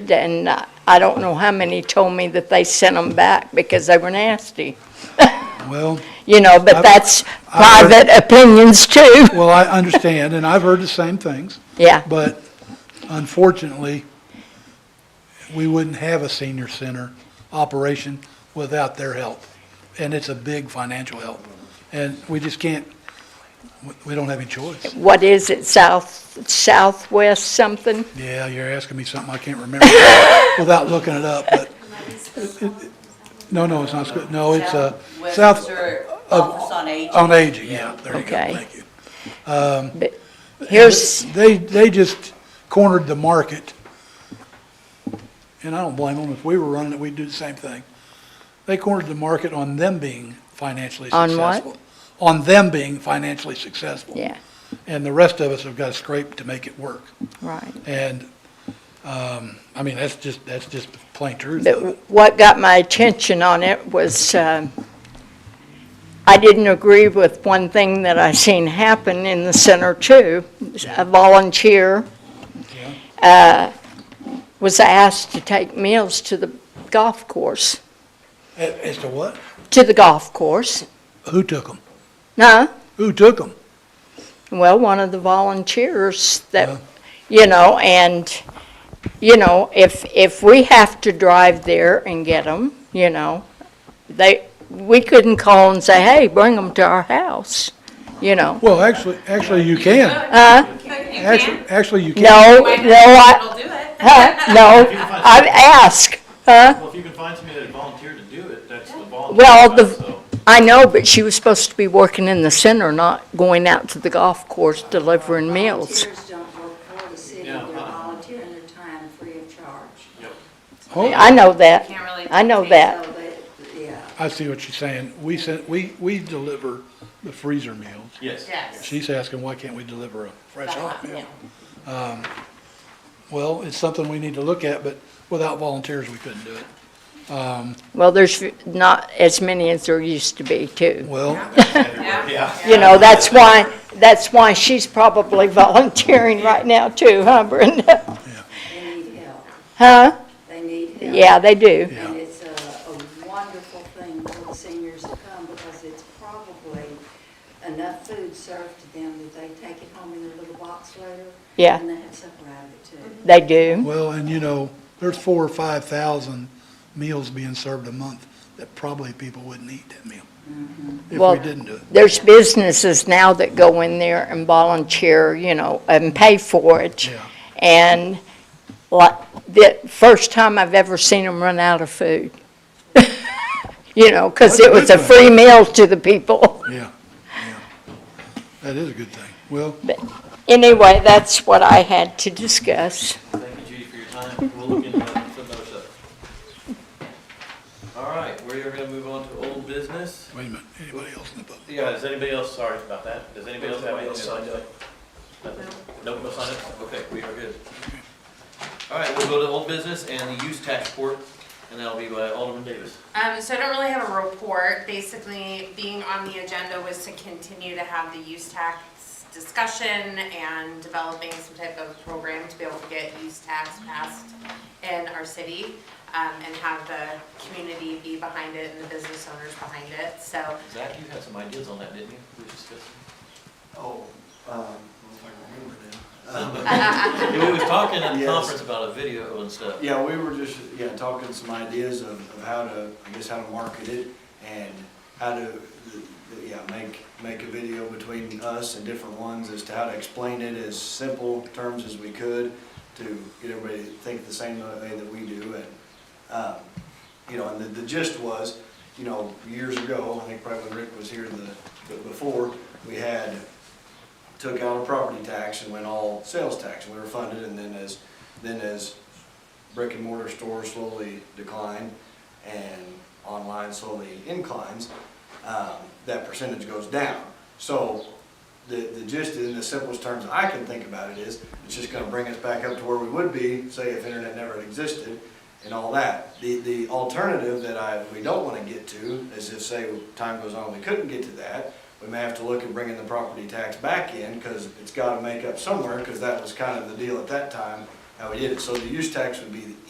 received, and uh, I don't know how many told me that they sent them back because they were nasty. Well, You know, but I've- that's I've heard- private opinions too. well, I understand, and I've heard the same things, Yeah, but unfortunately, we wouldn't have a senior center operation without their help, and it's a big financial help. And we just can't, we- we don't have any choice. what is it, south, southwest something? Yeah, you're asking me something I can't remember without looking it up, but, no, no, it's not, Squ- no, it's, uh, South, Westminster of- Oh, Office on Aging. on aging, yeah, there you go, Okay. thank you. But Here's, They, they just cornered the market. And I don't blame them. If we were running it, we'd do the same thing. They cornered the market on them being financially On what? successful. On them being financially successful. yeah, And the rest of us have got to scrape to make it work. right. And, um, I mean, that's just, that's just the plain truth. But what got my attention on it was, um, I didn't agree with one thing that I seen happen in the center too. A volunteer uh, was asked to take meals to the golf course, A- As to what? to the golf course. Who took them? No, Who took them? well, one of the volunteers Yeah. that, you know, and, you know, if, if we have to drive there and get them, you know, they, we couldn't call and say, hey, bring them to our house, you know. Well, actually, actually you can. Actually, You actually you can. No, no, can. It'll Uh, I, do it. huh, no, I ask, huh? Well, if you can find somebody that volunteered to do it, that's the volunteer Well, side, the, so. I know, but she was supposed to be working in the center, not going out to the golf course delivering meals. Volunteers don't work for the city, Yeah, they're uh-uh. volunteering their time free of charge. Yep. Oh. I know that. Can't really I know dictate that. So they, yeah. I see what you're saying. We sent, we, we deliver the freezer meals. Yes. Yes. She's asking, why can't we deliver a fresh hot meal? Yeah. Well, it's something we need to look at, but without volunteers, we couldn't do it. Um, Well, there's not as many as there used to be, too. Well, Yeah. You know, that's why, that's why she's probably volunteering right now, too, huh, Brenda? They need help, Huh? they need help. Yeah, they do. Yeah. And it's a, a wonderful thing for the seniors to come because it's probably enough food served to them that they take it home in their little box later. Yeah. And they have supper out of it too. They do. well, and you know, there's four or five thousand meals being served a month that probably people wouldn't eat that meal if Well- we didn't do it. There's businesses now that go in there and volunteer, you know, and pay for it. Yeah. And like, the first time I've ever seen them run out of food. You know, because That's a it was a good one. free meal to the people. Yeah, yeah. That is a good thing. Well, Anyway, that's what I had to discuss. Thank you, Judy, for your time. We'll look into that some other stuff. All right, we are gonna move on to old business. wait a minute, anybody else in the public? Yeah, does anybody else, sorry about that. Does anybody else have anything signed up? Nothing? Nope, no signed up? Okay, we are good. All right, we'll go to old business and the use tax report, and that'll be by Alderman Davis. Um, so I don't really have a report. Basically, being on the agenda was to continue to have the use tax discussion and developing some type of program to be able to get use tax passed in our city, um, and have the community be behind it and the business owners behind it. So, Zach, you had some ideas on that, didn't you? We discussed. Oh, um, Yeah, We was talking at the Yes. conference about a video and stuff. yeah, we were just, yeah, talking some ideas of, of how to, I guess, how to market it and how to, yeah, make, make a video between us and different ones as to how to explain it as simple terms as we could to get everybody to think the same way that we do and, um, you know, and the, the gist was, you know, years ago, I think probably when Rick was here the, the- before, we had, took out a property tax and went all sales tax, and we were funded, and then as, then as brick and mortar stores slowly decline and online slowly inclines, um, that percentage goes down. So the, the gist in the simplest terms I can think about it is, it's just gonna bring us back up to where we would be, say if internet never existed and all that. The, the alternative that I, we don't wanna get to is if, say, time goes on, we couldn't get to that, we may have to look at bringing the property tax back in, cause it's gotta make up somewhere, cause that was kind of the deal at that time, how we did it. So the use tax would be the